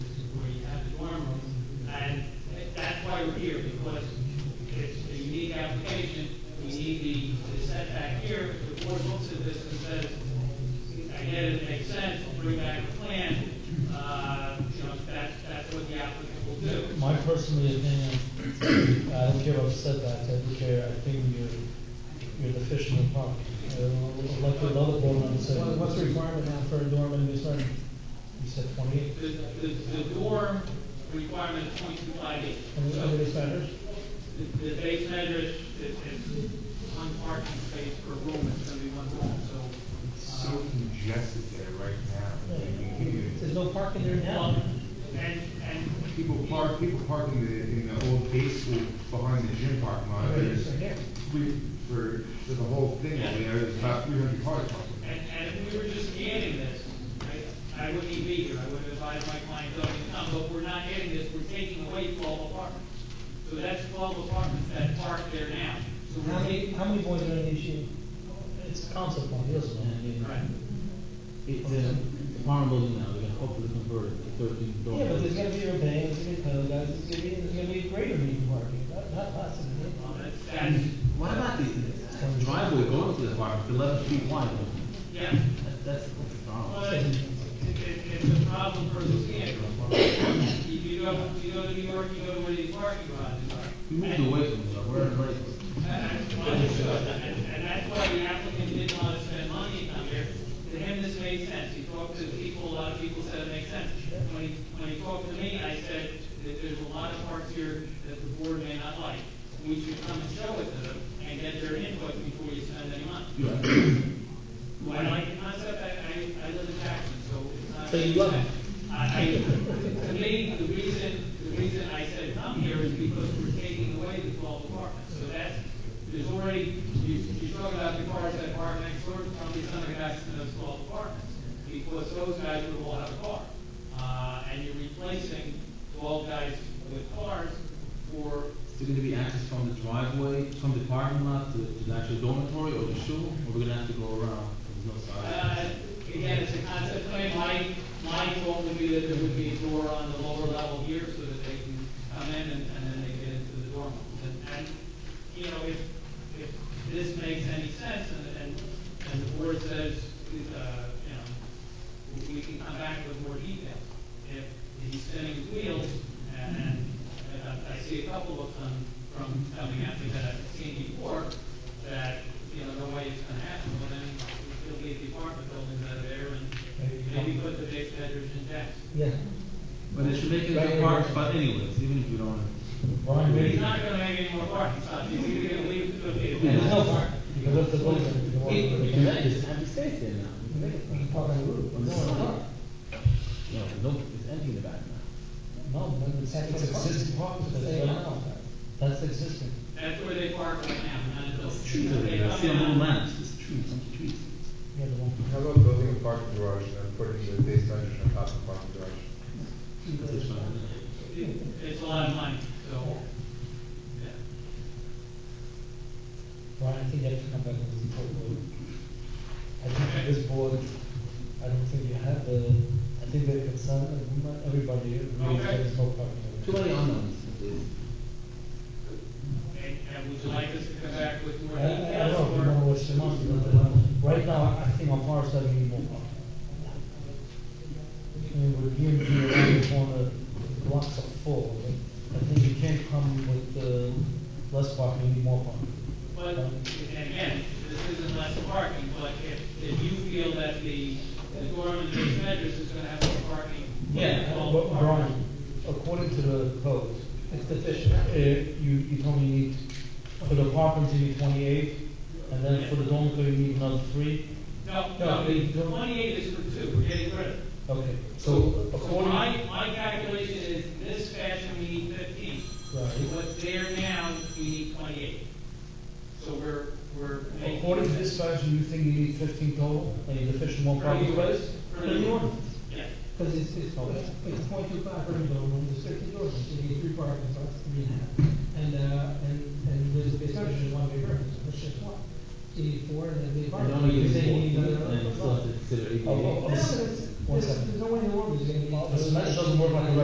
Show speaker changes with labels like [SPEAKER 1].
[SPEAKER 1] here, because it's a unique application, we need the- the setback here, the board looks at this and says, I get it, makes sense, bring back a plan, uh, you know, that's, that's what the applicant will do.
[SPEAKER 2] My personal opinion, I don't care what setbacks, I don't care, I think you're, you're deficient in park. I don't know, Like the other board member said, what- what's the requirement now for a dorm in this room? You said twenty-eight,
[SPEAKER 1] The, the, the dorm requirement is point two five eight.
[SPEAKER 2] and the
[SPEAKER 1] So
[SPEAKER 2] other base matters?
[SPEAKER 1] the, the base measure is, is, is one parking space per room, it's gonna be one room, so.
[SPEAKER 3] So
[SPEAKER 1] um,
[SPEAKER 3] congested there right now.
[SPEAKER 2] There's no parking there now.
[SPEAKER 1] well, And, and
[SPEAKER 3] People park, people park in the, in the old day school behind the gym parking lot. There's
[SPEAKER 2] Right here.
[SPEAKER 3] three, for, for the whole thing, over there, there's about three hundred cars parking.
[SPEAKER 1] And, and if we were just adding this, I, I wouldn't even be here, I would have invited my client Doug to come, but we're not adding this, we're taking away twelve apartments. So that's twelve apartments that park there now. So
[SPEAKER 2] How
[SPEAKER 1] we're
[SPEAKER 2] many,
[SPEAKER 1] taking,
[SPEAKER 2] how many boys are in each unit? It's council point, it doesn't matter.
[SPEAKER 1] right,
[SPEAKER 4] It's a uh, farm building now, we're gonna hopefully convert it to thirteen dormers.
[SPEAKER 2] Yeah, but there's gonna be a bank, there's gonna be code, guys, there's gonna be, there's gonna be greater need for parking, not, not less
[SPEAKER 1] well,
[SPEAKER 2] than
[SPEAKER 1] that's, that's,
[SPEAKER 4] What about the the driveway going to the farm, it's eleven feet wide,
[SPEAKER 1] yeah,
[SPEAKER 4] That- that's, that's a problem.
[SPEAKER 1] but it, it, it's a problem for the standard. If you go, if you go to New York, you go to where these parking garages are.
[SPEAKER 4] We moved
[SPEAKER 1] And-
[SPEAKER 4] away from there, we're in Lakewood.
[SPEAKER 1] Understood, and, and that's why the applicant didn't want to spend money down here. To him, this made sense. He talked to people, a lot of people said it makes sense. When he, when he talked to me, I said that there's a lot of parts here that the board may not like. We should come and show it to them and get their input before you spend any money. Well, I like the concept, I, I, I live in Jackson, so it's not.
[SPEAKER 2] So you love it?
[SPEAKER 1] I, I, to me, the reason, the reason I said come here is because we're taking away the twelve apartments, so that's, there's already, you, you talk about the cars that park next door, probably some of the guys in those twelve apartments, because those guys would all have a car. Uh, and you're replacing twelve guys with cars for,
[SPEAKER 4] Is it gonna be access from the driveway, from the parking lot to, to the actual dormitory or the shul, or we're gonna have to go around? There's no
[SPEAKER 1] Uh,
[SPEAKER 4] side.
[SPEAKER 1] Again, it's a concept plan, my, my goal would be that there would be a door on the lower level here so that they can come in and, and then they get into the dorm. And, and, you know, if, if this makes any sense and, and, and the board says, uh, you know, we can come back with more detail. If he's spinning his wheels and, and I- I see a couple of them from coming at me that I've seen before, that, you know, no way it's gonna happen, well then it'll be the apartment buildings out of there and maybe put the big bedrooms in decks.
[SPEAKER 2] that.
[SPEAKER 4] But they should make it a park spot anyways, even if you don't.
[SPEAKER 2] Yeah. Brian,
[SPEAKER 1] He's
[SPEAKER 2] maybe.
[SPEAKER 1] not gonna make any more parking spots, he's either gonna leave it to a
[SPEAKER 2] Yeah,
[SPEAKER 1] bid.
[SPEAKER 2] there's no park, because that's the building. you know,
[SPEAKER 4] Hey,
[SPEAKER 2] you
[SPEAKER 4] we
[SPEAKER 2] can-
[SPEAKER 4] can make this empty space there now. We can make it-
[SPEAKER 2] you can park on the roof,
[SPEAKER 4] On the
[SPEAKER 2] no, it's
[SPEAKER 4] side.
[SPEAKER 2] not.
[SPEAKER 4] No, no, it's empty in the back now.
[SPEAKER 2] No, but it's.
[SPEAKER 5] It's existing parking.
[SPEAKER 2] That's
[SPEAKER 5] They
[SPEAKER 2] right.
[SPEAKER 5] allow that.
[SPEAKER 2] That's existing.
[SPEAKER 1] That's where they park right now, none of those.
[SPEAKER 4] Trees over there, I see a little lamps, there's trees, some trees.
[SPEAKER 2] Yeah, the one.
[SPEAKER 6] How about building a parking garage and putting the base measures on top of the parking garage?
[SPEAKER 4] That's fine.
[SPEAKER 1] It's a lot of money, so, yeah.
[SPEAKER 2] Brian, I think you have to come back with the proposal. I think for this board, I don't think you have the, I think they're concerned, and not everybody, agrees that there's no
[SPEAKER 4] Too
[SPEAKER 2] parking.
[SPEAKER 4] many unknowns. There's-
[SPEAKER 1] And, and would you like us to come back with more
[SPEAKER 2] I, I
[SPEAKER 1] details
[SPEAKER 2] don't know
[SPEAKER 1] or?
[SPEAKER 2] what's the month, but uh, right now, I think on Forest Avenue, you won't. And with you, you around the corner, blocks are full, but I think you can't come with, uh, less parking, you need more parking.
[SPEAKER 1] But, and again, this isn't less parking, but if, if you feel that the, the dorm and the bedrooms is gonna have more parking.
[SPEAKER 2] Yeah,
[SPEAKER 1] well,
[SPEAKER 2] but
[SPEAKER 1] parking.
[SPEAKER 2] Brian, according to the code,
[SPEAKER 5] It's deficient.
[SPEAKER 2] uh, you, you told me you need, for the apartments, you need twenty-eight, and then for the dormitory, you need another three?
[SPEAKER 1] No, no, the the twenty-eight is for two, we're getting rid of it.
[SPEAKER 2] Okay, so
[SPEAKER 1] So
[SPEAKER 2] according,
[SPEAKER 1] my, my calculation is this fashion, we need fifteen.
[SPEAKER 2] Right.
[SPEAKER 1] What's there now, we need twenty-eight. So we're, we're. making-
[SPEAKER 2] according to this version, you think you need fifteen total, and you're deficient one
[SPEAKER 1] For the
[SPEAKER 2] parking space?
[SPEAKER 1] ordinance?
[SPEAKER 2] For the ordinance.
[SPEAKER 1] Yeah.
[SPEAKER 5] Because it's, it's, it's point two five per building, there's fifty doors, you need three parking spots, three and a half. And, uh, and, and there's a base measure, there's one big purpose, which is one. You need four, and then the
[SPEAKER 4] I
[SPEAKER 5] apartment.
[SPEAKER 4] don't know, you
[SPEAKER 5] You're saying
[SPEAKER 4] say,
[SPEAKER 5] you need another.
[SPEAKER 4] and still have to consider ADA.
[SPEAKER 2] Oh, oh,
[SPEAKER 5] No,
[SPEAKER 2] oh.
[SPEAKER 5] there's,
[SPEAKER 2] One
[SPEAKER 5] there's
[SPEAKER 2] second.
[SPEAKER 5] there's no way in the world is gonna be.
[SPEAKER 2] This doesn't work like a